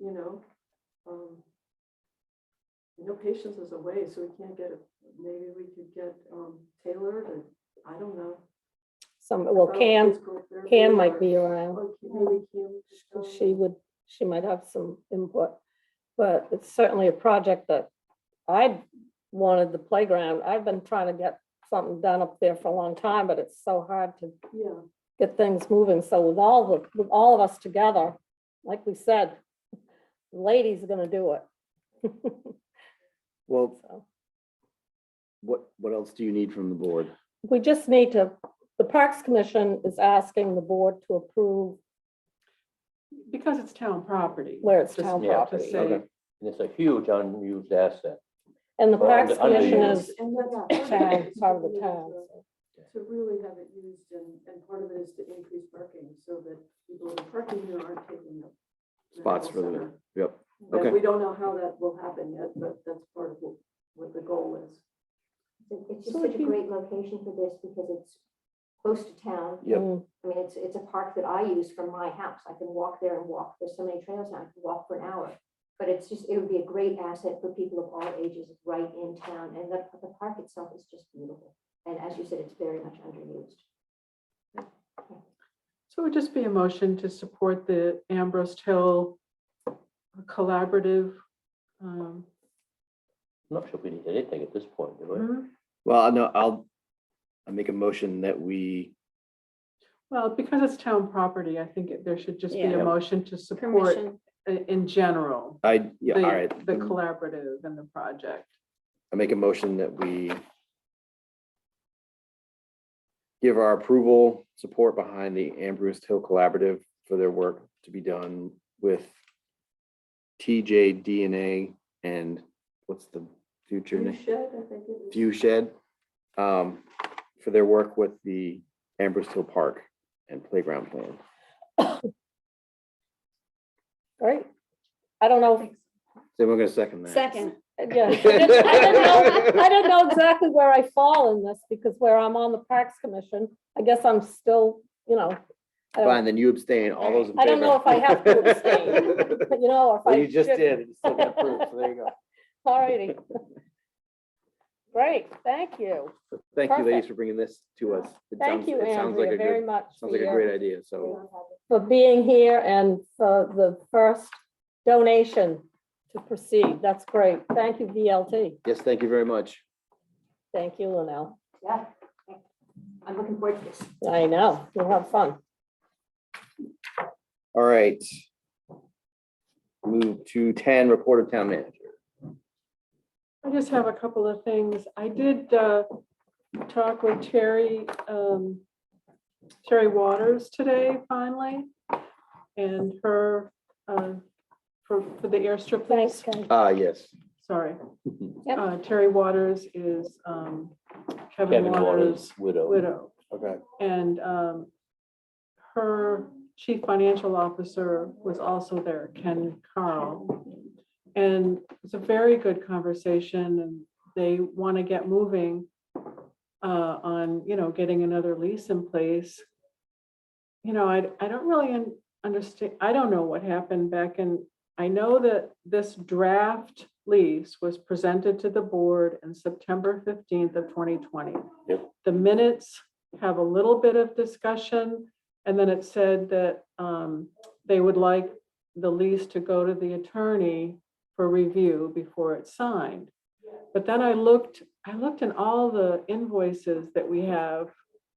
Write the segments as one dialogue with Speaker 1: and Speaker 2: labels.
Speaker 1: No um, patience is away, so we can't get, it. maybe we could get um, tailored and, I don't know.
Speaker 2: Some, well,
Speaker 1: Or
Speaker 2: Cam,
Speaker 1: physical therapy
Speaker 2: Cam might
Speaker 1: or-
Speaker 2: be around.
Speaker 1: or Maybe Cam. could go.
Speaker 2: She would, she might have some input. But it's certainly a project that I wanted the playground. I've been trying to get something done up there for a long time, but it's so hard to
Speaker 1: Yeah,
Speaker 2: get things moving. So with all, the with all of us together, like we said, ladies are gonna do it.
Speaker 3: Well,
Speaker 2: So
Speaker 3: what, what else do you need from the board?
Speaker 2: We just need to, the Parks Commission is asking the board to approve
Speaker 4: Because it's town property.
Speaker 2: where it's
Speaker 4: Just-
Speaker 2: town
Speaker 5: Yeah.
Speaker 2: property.
Speaker 4: say-
Speaker 5: Okay. And it's a huge unused asset.
Speaker 2: And the
Speaker 5: Well,
Speaker 2: Parks
Speaker 5: under-
Speaker 2: Commission
Speaker 5: underused.
Speaker 2: is
Speaker 1: and that's
Speaker 2: town, part of
Speaker 1: We
Speaker 2: the
Speaker 1: need
Speaker 2: town.
Speaker 1: to-
Speaker 2: so.
Speaker 1: To really have it used and, and part of it is to increase parking so that people who are parking here aren't taking up. the
Speaker 3: Spots
Speaker 1: whole
Speaker 3: for the,
Speaker 1: center.
Speaker 3: yep,
Speaker 1: But
Speaker 3: okay.
Speaker 1: we don't know how that will happen yet, but that's part of what, what the goal is.
Speaker 6: It's it's just
Speaker 2: So
Speaker 6: such
Speaker 2: if
Speaker 6: a
Speaker 2: you-
Speaker 6: great location for this because it's close to town.
Speaker 3: Yep.
Speaker 2: Mm,
Speaker 6: I mean, it's, it's a park that I use from my house. I can walk there and walk. There's so many trails now, I can walk for an hour. But it's just, it would be a great asset for people of all ages right in town. And the, the park itself is just beautiful. And as you said, it's very much underused.
Speaker 4: So it would just be a motion to support the Ambrose Hill uh, collaborative. um,
Speaker 5: I'm not sure we need anything at this point, do
Speaker 6: Mm-hmm.
Speaker 5: we?
Speaker 2: Mm-hmm.
Speaker 3: Well, no, I'll, I make a motion that we,
Speaker 4: Well, because it's town property, I think it- there should just be
Speaker 5: Yeah.
Speaker 4: a motion to support i- in general.
Speaker 3: I, yeah, all
Speaker 4: the-
Speaker 3: right.
Speaker 4: The collaborative and the project.
Speaker 3: I make a motion that we give our approval, support behind the Ambrose Hill Collaborative for their work to be done with TJ DNA and what's the future
Speaker 1: You
Speaker 3: name?
Speaker 1: should, I think it is.
Speaker 3: View Shed um, for their work with the Ambrose Hill Park and Playground Plan.
Speaker 2: Great. I don't know. if-
Speaker 3: So we're gonna second that.
Speaker 2: yeah, I didn't I didn't know I didn't know exactly where I fall in this because where I'm on the Parks Commission, I guess I'm still, you know, I
Speaker 3: Fine,
Speaker 2: don't-
Speaker 3: then you abstain, all those in favor.
Speaker 2: I don't know if I have to abstain. but you know, or if I.
Speaker 3: Well, you just
Speaker 2: should-
Speaker 3: did, it's still got approved, so there you go.
Speaker 2: All righty. Great, thank you.
Speaker 3: Thank you ladies
Speaker 2: Perfect.
Speaker 3: for bringing this to us. It
Speaker 2: Thank
Speaker 3: sounds-
Speaker 2: you,
Speaker 3: it sounds like
Speaker 2: Andrea,
Speaker 3: a good-
Speaker 2: very much.
Speaker 3: Sounds
Speaker 2: for
Speaker 3: like a
Speaker 2: your-
Speaker 3: great idea, so
Speaker 2: for being here and for the first donation to proceed. That's great. Thank you, VLT.
Speaker 3: yes, thank you very much.
Speaker 2: Thank you, Linnell.
Speaker 6: Yeah. I'm looking forward to this.
Speaker 2: I know, you'll have fun.
Speaker 3: All right. Move to ten, report of town manager.
Speaker 4: I just have a couple of things. I did uh, talk with Terry, um, Terry Waters today finally. And her, uh, for, for the airstrip
Speaker 2: Thanks,
Speaker 4: lease,
Speaker 2: guys.
Speaker 3: Ah, yes.
Speaker 4: sorry.
Speaker 2: Yep.
Speaker 4: Uh, Terry Waters is um, Kevin
Speaker 5: Kevin
Speaker 4: Waters'
Speaker 5: Waters' widow.
Speaker 4: widow.
Speaker 3: Okay.
Speaker 4: And um, her chief financial officer was also there, Ken Carl. And it's a very good conversation and they want to get moving uh, on, you know, getting another lease in place. You know, I, I don't really un- understand, I don't know what happened back in, I know that this draft lease was presented to the board in September fifteenth of twenty twenty.
Speaker 5: Yep.
Speaker 4: The minutes have a little bit of discussion. And then it said that um, they would like the lease to go to the attorney for review before it's signed. But then I looked, I looked in all the invoices that we have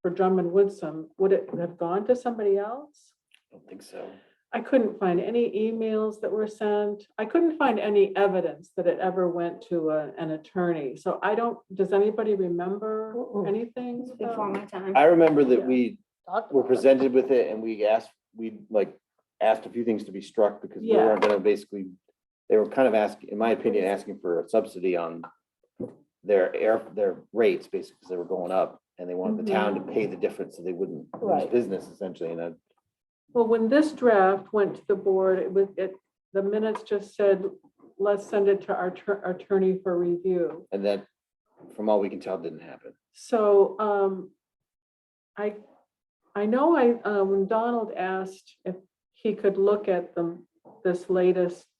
Speaker 4: for Drummond Woodsum. Would it have gone to somebody else?
Speaker 3: I don't think so.
Speaker 4: I couldn't find any emails that were sent. I couldn't find any evidence that it ever went to a- an attorney. So I don't, does anybody remember
Speaker 2: Mm-mm.
Speaker 4: anything?
Speaker 7: Oh,
Speaker 2: Oh.
Speaker 7: Before
Speaker 4: about-
Speaker 7: my time.
Speaker 3: I remember that
Speaker 4: Yeah.
Speaker 3: we
Speaker 2: Talked
Speaker 3: were
Speaker 2: about it.
Speaker 3: presented with it and we asked, we like asked a few things to be struck because we
Speaker 4: Yeah.
Speaker 3: weren't gonna basically, they were kind of asking, in my opinion, asking for a subsidy on their air, their rates, basically, because they were going up and they wanted the town to pay the difference so they wouldn't lose
Speaker 2: Right.
Speaker 3: business essentially. And I,
Speaker 4: Well, when this draft went to the board, it was, it, the minutes just said, let's send it to our tur- attorney for review.
Speaker 3: and that, from all we can tell, didn't happen.
Speaker 4: So, um, I, I know I, uh, when Donald asked if he could look at them, this latest